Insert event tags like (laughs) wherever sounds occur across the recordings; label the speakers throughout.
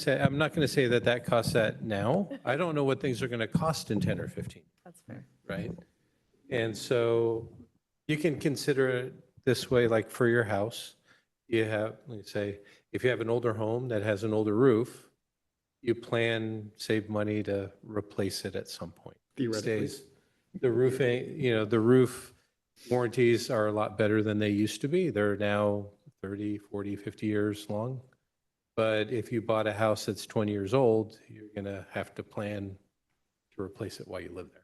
Speaker 1: say, I'm not going to say that that costs that now. I don't know what things are going to cost in 10 or 15,
Speaker 2: That's fair.
Speaker 1: right? And so you can consider it this way, like for your house, you have, let me say, if you have an older home that has an older roof, you plan, save money to replace it at some point. These
Speaker 3: Theoretically.
Speaker 1: days, The roof ain't, you know, the roof warranties are a lot better than they used to be. They're now 30, 40, 50 years long. But if you bought a house that's 20 years old, you're going to have to plan to replace it while you live there.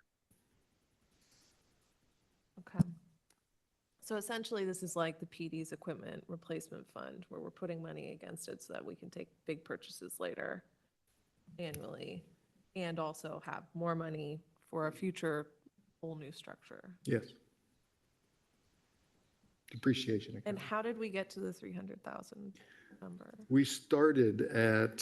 Speaker 2: Okay. So essentially, this is like the PD's equipment replacement fund, where we're putting money against it so that we can take big purchases later annually, and also have more money for a future whole new structure.
Speaker 3: Yes. Depreciation.
Speaker 2: And
Speaker 3: account.
Speaker 2: how did we get to the 300,000 number?
Speaker 3: We started at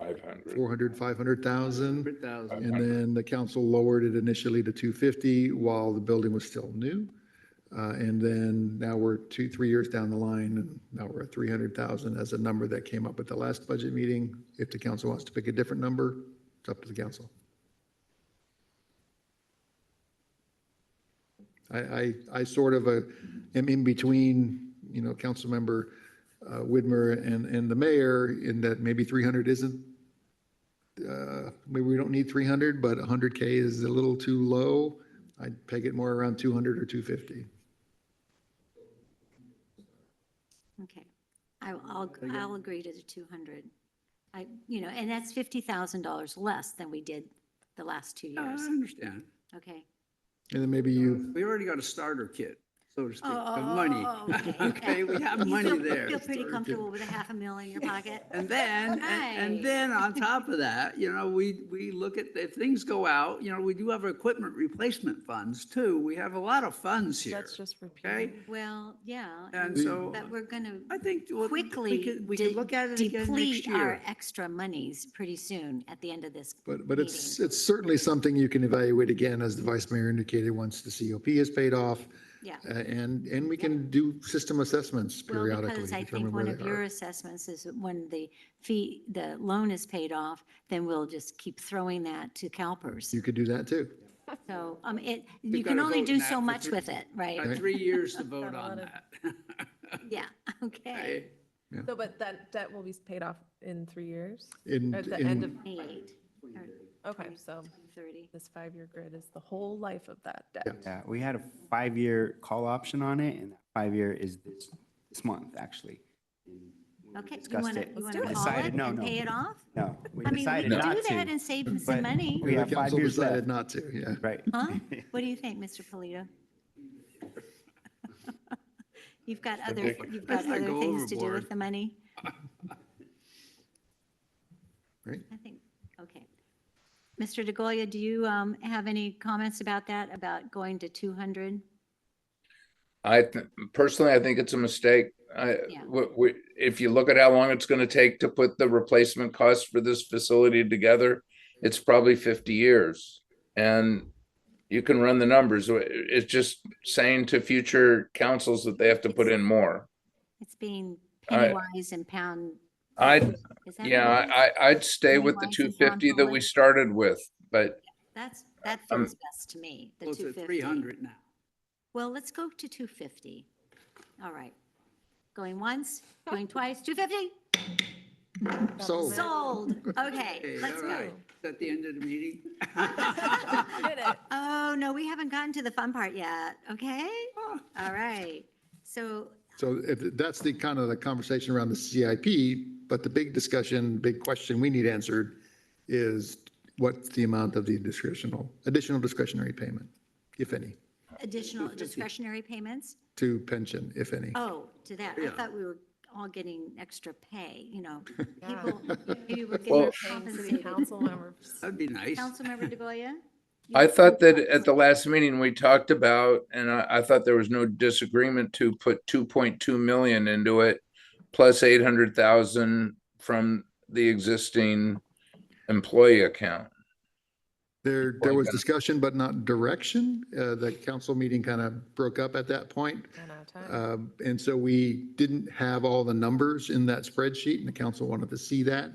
Speaker 4: 500.
Speaker 3: 400, 500,000.
Speaker 5: 100,000.
Speaker 3: And then the council lowered it initially to 250 while the building was still new. Uh, And then now we're two, three years down the line, and now we're at 300,000 as a number that came up at the last budget meeting. If the council wants to pick a different number, it's up to the council. I, I, I sort of uh, am in between, you know, Councilmember uh, Widmer and, and the mayor in that maybe 300 isn't uh, maybe we don't need 300, but 100K is a little too low. I'd peg it more around 200 or 250.
Speaker 6: Okay. I- I'll, I'll agree to the 200. I, you know, and that's $50,000 less than we did the last two
Speaker 5: I
Speaker 6: years.
Speaker 5: understand.
Speaker 6: Okay.
Speaker 3: And then maybe you,
Speaker 5: We already got a starter kit, so to speak,
Speaker 6: Oh,
Speaker 5: of
Speaker 6: oh,
Speaker 5: money.
Speaker 6: oh, okay,
Speaker 5: (laughs) Okay, we
Speaker 6: (laughs)
Speaker 5: have
Speaker 6: You
Speaker 5: money
Speaker 6: feel-
Speaker 5: there.
Speaker 6: Feel pretty comfortable with a half a mil in your pocket?
Speaker 5: And then, and-
Speaker 6: Right.
Speaker 5: and
Speaker 6: (laughs)
Speaker 5: then on top of that, you know, we, we look at, if things go out, you know, we do have equipment replacement funds too. We have a lot of funds here,
Speaker 2: That's just repeating.
Speaker 5: okay?
Speaker 6: Well, yeah.
Speaker 5: And so
Speaker 6: But we're going to
Speaker 5: I think well, we
Speaker 6: quickly
Speaker 5: could, we could
Speaker 6: de-
Speaker 5: look at it again next
Speaker 6: deplete our
Speaker 5: year.
Speaker 6: extra monies pretty soon at the end of this.
Speaker 3: but, but it's,
Speaker 6: meeting.
Speaker 3: it's certainly something you can evaluate again, as the vice mayor indicated, once the COP is paid off.
Speaker 6: Yeah.
Speaker 3: a- And, and we can do system assessments
Speaker 6: Well,
Speaker 3: periodically.
Speaker 6: because I
Speaker 3: determine
Speaker 6: think
Speaker 3: where
Speaker 6: one
Speaker 3: they
Speaker 6: of
Speaker 3: are.
Speaker 6: your assessments is that when the fee, the loan is paid off, then we'll just keep throwing that to CalPERS.
Speaker 3: You could do that too.
Speaker 6: So, um, it, you
Speaker 5: got
Speaker 6: can
Speaker 5: to
Speaker 6: only
Speaker 5: vote
Speaker 6: do
Speaker 5: now
Speaker 6: so
Speaker 5: for
Speaker 6: much
Speaker 5: three-
Speaker 6: with it,
Speaker 5: Got
Speaker 6: right?
Speaker 5: three years to vote
Speaker 2: a lot
Speaker 5: on
Speaker 2: of-
Speaker 5: that.
Speaker 6: (laughs)
Speaker 5: (laughs)
Speaker 6: Yeah, okay.
Speaker 5: Okay?
Speaker 2: So, but that debt will be paid off in three years?
Speaker 3: In-
Speaker 2: Or At the
Speaker 3: in-
Speaker 2: end of,
Speaker 6: Eight, or
Speaker 2: okay, so
Speaker 6: 30.
Speaker 2: this five-year grid is the whole life of that debt.
Speaker 7: Yeah, we had a five-year call option on it, and that five-year is this, this month, actually.
Speaker 6: Okay, you
Speaker 7: discussed
Speaker 6: want to,
Speaker 7: it.
Speaker 6: you want
Speaker 2: Let's do
Speaker 6: to
Speaker 2: it.
Speaker 6: call it
Speaker 7: Decided, no,
Speaker 6: and
Speaker 7: no.
Speaker 6: pay it off?
Speaker 7: No, we
Speaker 6: I mean, we
Speaker 7: decided
Speaker 6: could do
Speaker 7: not
Speaker 6: that
Speaker 7: to.
Speaker 6: and save some
Speaker 7: but
Speaker 6: money,
Speaker 7: We
Speaker 3: The
Speaker 7: have five
Speaker 3: council
Speaker 7: years
Speaker 3: decided
Speaker 7: left,
Speaker 3: not to, yeah.
Speaker 7: right? (laughs)
Speaker 6: huh? What do you think, Mr. Polito? (laughs) You've got other, you've got
Speaker 5: Let's not
Speaker 6: other
Speaker 5: go
Speaker 6: things to do
Speaker 5: overboard.
Speaker 6: with the
Speaker 7: (laughs)
Speaker 6: money?
Speaker 3: Right.
Speaker 6: I think, okay. Mr. DeGolia, do you um, have any comments about that, about going to 200?
Speaker 4: I th- personally, I think it's a mistake. I,
Speaker 6: Yeah.
Speaker 4: we, we, if you look at how long it's gonna take to put the replacement cost for this facility together, it's probably fifty years. And you can run the numbers. It- It's just saying to future councils that they have to put in more.
Speaker 6: It's being
Speaker 4: I-
Speaker 6: penny wise and pound.
Speaker 4: I'd,
Speaker 6: is that
Speaker 4: yeah,
Speaker 6: right?
Speaker 4: I, I- I'd stay with the
Speaker 6: Pennywise
Speaker 4: two
Speaker 6: is
Speaker 4: fifty that we
Speaker 6: non-public.
Speaker 4: started with, but
Speaker 6: That's, that
Speaker 4: Um,
Speaker 6: feels best to me, the
Speaker 5: Close to
Speaker 6: 250.
Speaker 5: 300 now.
Speaker 6: Well, let's go to 250. All right. Going once, going twice, 250,
Speaker 3: So,
Speaker 6: sold. Okay,
Speaker 5: (laughs) Okay,
Speaker 6: let's
Speaker 5: all
Speaker 6: go.
Speaker 5: right. Is that the end of the meeting? (laughs)
Speaker 2: Did it.
Speaker 6: Oh, no, we haven't gotten to the fun part yet, okay?
Speaker 5: Ah.
Speaker 6: All right. So
Speaker 3: so if- that's the kind of the conversation around the CIP, but the big discussion, big question we need answered is what's the amount of the discretional, additional discretionary payment, if any,
Speaker 6: additional discretionary payments?
Speaker 3: to pension, if any?
Speaker 6: Oh, to that. I
Speaker 5: Yeah.
Speaker 6: thought we were all getting extra pay, you
Speaker 5: (laughs)
Speaker 6: know. People, maybe we're
Speaker 4: Well-
Speaker 2: paying
Speaker 6: getting
Speaker 2: city
Speaker 6: compensated.
Speaker 2: council members.
Speaker 5: That'd be nice.
Speaker 6: Councilmember DeGoya?
Speaker 4: I thought that at the last meeting, we talked about, and I, I thought there was no disagreement to put two point two million into it. Plus eight hundred thousand from the existing employee account.
Speaker 3: There, there was discussion, but not direction. Uh, The council meeting kind of broke up at that point.
Speaker 2: Ran out of
Speaker 3: Uh,
Speaker 2: time.
Speaker 3: Um, And so we didn't have all the numbers in that spreadsheet, and the council wanted to see that.